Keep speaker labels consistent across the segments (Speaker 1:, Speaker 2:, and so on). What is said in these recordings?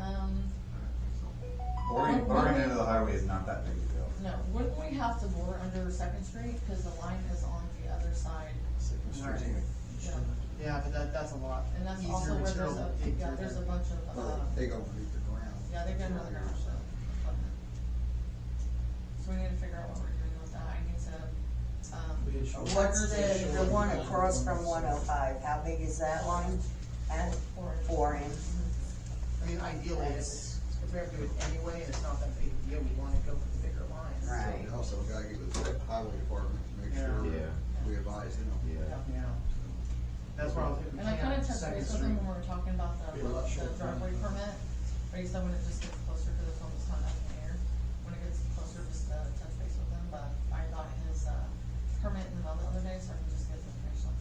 Speaker 1: Um,
Speaker 2: Boring, boring into the highway is not that big a deal.
Speaker 1: No, wouldn't we have to bore under Second Street, cause the line is on the other side,
Speaker 2: Second Street.
Speaker 3: Right.
Speaker 1: yeah,
Speaker 3: Yeah, but that, that's a lot.
Speaker 1: and that's
Speaker 3: easier
Speaker 1: also where there's
Speaker 3: material
Speaker 1: a,
Speaker 3: to dig
Speaker 1: yeah,
Speaker 3: through
Speaker 1: there's a
Speaker 3: than-
Speaker 1: bunch of, uh,
Speaker 4: Well, They gonna leave the ground.
Speaker 1: yeah, they're getting on the ground, so. okay. So we need to figure out what we're doing with that, I need to, um,
Speaker 5: What's the, the one across from one oh five, how big is that line? At
Speaker 1: Four.
Speaker 5: four inch?
Speaker 3: I mean, ideally, it's, if we have to do it anyway, and it's not that big a deal, we wanna go for the bigger lines.
Speaker 5: Right.
Speaker 4: So we also gotta get with the highway department to make sure
Speaker 6: Yeah.
Speaker 4: we advise them.
Speaker 6: Yeah.
Speaker 3: Yeah, that's why I was hitting.
Speaker 1: and I kinda touched
Speaker 3: Second
Speaker 1: base with them
Speaker 3: Street.
Speaker 1: when we were talking about the,
Speaker 4: Be a lot
Speaker 1: the
Speaker 4: shorter.
Speaker 1: driveway permit, or you said when it just gets closer to the film, it's not up in the air. When it gets closer, just, uh, touch base with them, but I got his, uh, permit in the mail the other day, so I can just get the information on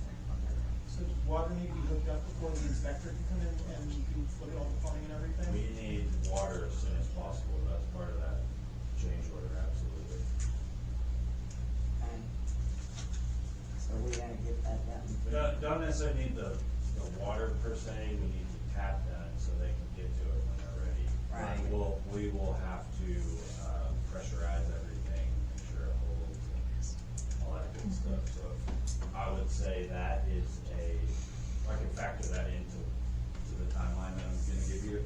Speaker 1: there.
Speaker 7: So does water need to be hooked up before the inspector can come in and do, look at all the plumbing and
Speaker 6: We
Speaker 7: everything?
Speaker 6: need water as soon as possible, that's part of that change order, absolutely.
Speaker 5: Okay. So we gotta get that done.
Speaker 6: We don't, don't necessarily need the, the water per se, we need to tap that so they can get to it when they're ready.
Speaker 5: Right.
Speaker 6: And We'll, we will have to, uh, pressurize everything, make sure it holds and all that good stuff, so I would say that is a, I can factor that into, to the timeline that I'm gonna give you.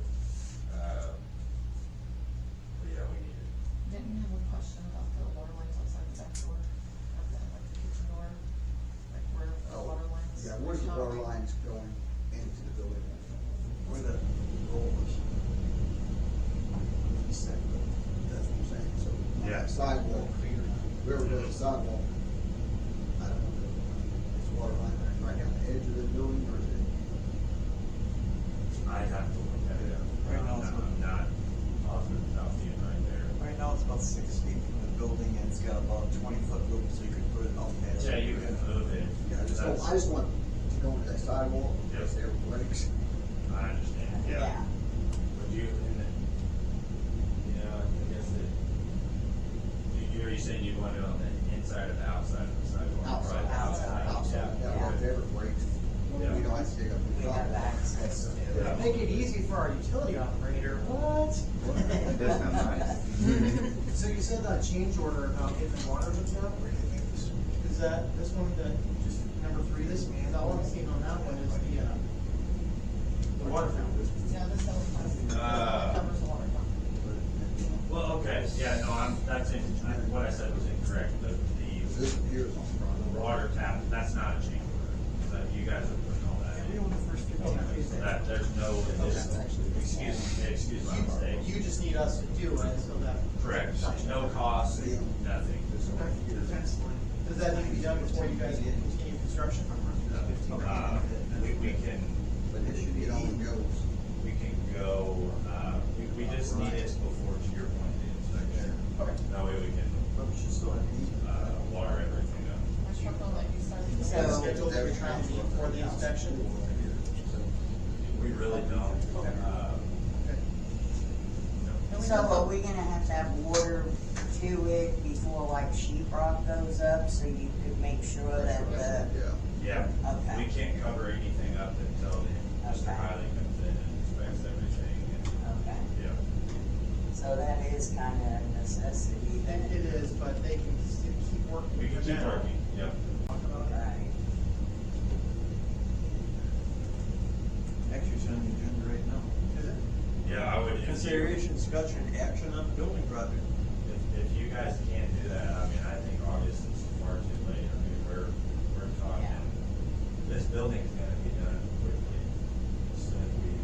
Speaker 6: Uh, But yeah, we need it.
Speaker 1: Didn't you have a question about the water lines outside the back door, of the, like, the kitchen door, like where the
Speaker 4: Oh,
Speaker 1: water lines?
Speaker 4: Yeah, where's the
Speaker 1: how-
Speaker 4: water lines going into the building? Where the rollers? He said, but That's what I'm saying, so. on
Speaker 6: Yeah.
Speaker 4: that Sidewalk, wherever the sidewalk, I don't know, is water line right down the edge of the building or is it?
Speaker 6: I have to look at it.
Speaker 8: Right now, it's-
Speaker 6: I'm not positive about being right there.
Speaker 8: Right now, it's about six feet from the building, and it's got about twenty foot loop, so you could put it on that.
Speaker 6: Yeah, you can move it.
Speaker 4: Yeah, I just, don't- I just want to go into that sidewalk, because they're breaks.
Speaker 6: I understand, yeah. Would you, and then, you know, I guess that, you, you're saying you want it on the inside or the outside of the sidewalk?
Speaker 4: Outside,
Speaker 6: Right,
Speaker 5: outside,
Speaker 4: Outside, yeah,
Speaker 5: Yeah.
Speaker 4: if they ever breaks, we
Speaker 6: Yeah.
Speaker 4: don't have to dig up. the
Speaker 5: We
Speaker 4: driveway.
Speaker 5: have access to it.
Speaker 6: Yeah.
Speaker 3: Make it easy for our utility operator, what?
Speaker 2: That's not nice.
Speaker 3: So you said that change order about getting the water hooked up, where do you think this, is that, this one, the, just number three, this man, all I'm seeing on that one is the, uh, the water fountain.
Speaker 1: Yeah, this is what it
Speaker 6: Ah.
Speaker 1: covers the water.
Speaker 6: Well, okay, yeah, no, I'm, that's in, I- what I said was incorrect, the, the
Speaker 4: This one here is on front.
Speaker 6: the water tap, that's not a change order, but you guys are putting all that in.
Speaker 3: Everyone the first fifteen
Speaker 6: Okay,
Speaker 3: pages.
Speaker 6: so that, there's no additional, excuse me, excuse my mistake.
Speaker 3: You, you just need us to do it, so that.
Speaker 6: Correct, no cost, nothing.
Speaker 3: Does that need to be done before you guys get continue construction?
Speaker 6: Uh, we, we can,
Speaker 4: But it should be on the goes.
Speaker 6: we can go, uh, we, we just need it before, to your point, the inspection.
Speaker 3: Okay.
Speaker 6: That way we can,
Speaker 8: But we should still have these.
Speaker 6: uh, water everything up.
Speaker 1: I struck on like you said.
Speaker 3: So- Schedule every time before the inspection?
Speaker 6: We really don't, uh, no.
Speaker 5: So are we gonna have to have water to it before like sheetrock goes up, so you could make sure that the,
Speaker 4: Yeah.
Speaker 6: Yeah,
Speaker 5: Okay.
Speaker 6: we can't cover anything up until the- Mr.
Speaker 5: Okay.
Speaker 6: Hiley comes in and inspects everything
Speaker 5: okay,
Speaker 6: and, yeah.
Speaker 5: so that is kinda a necessity
Speaker 3: It
Speaker 5: then.
Speaker 3: it is, but they can still keep working.
Speaker 6: We can keep working, yeah.
Speaker 3: Talk about it.
Speaker 5: Right.
Speaker 8: Actually, it's on the agenda right now.
Speaker 3: Is it?
Speaker 6: Yeah, I would.
Speaker 8: Consideration, discussion, and action on the building project.
Speaker 6: If, if you guys can't do that, I mean, I think August is far too late, I mean, we're, we're talking,
Speaker 5: Yeah.
Speaker 6: this building's gonna be done quickly, as soon as we,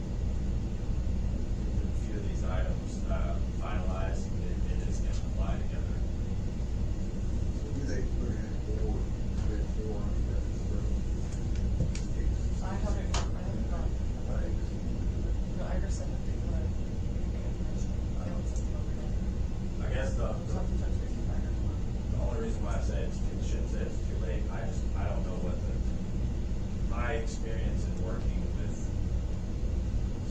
Speaker 6: get a few of these items, uh, finalized, it, it is gonna fly together.
Speaker 4: Do they put in four, put in four on the
Speaker 1: I haven't, I haven't got, no, I just sent it to you, but. I don't send it over yet.
Speaker 6: I guess the,
Speaker 1: So I have to touch base with Ryder tomorrow.
Speaker 6: the only reason why I say it's, it shouldn't say it's too late, I just, I don't know what the, my experience in working with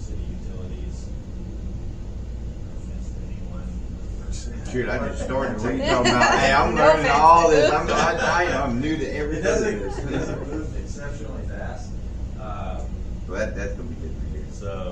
Speaker 6: city utilities, no offense to anyone,
Speaker 2: Dude, I just started to read talking about, hey, I'm learning all this, I'm, I, I, I'm new to
Speaker 6: It
Speaker 2: everything.
Speaker 6: doesn't, it doesn't move exceptionally fast, uh,
Speaker 2: But that's gonna be good for you.
Speaker 6: so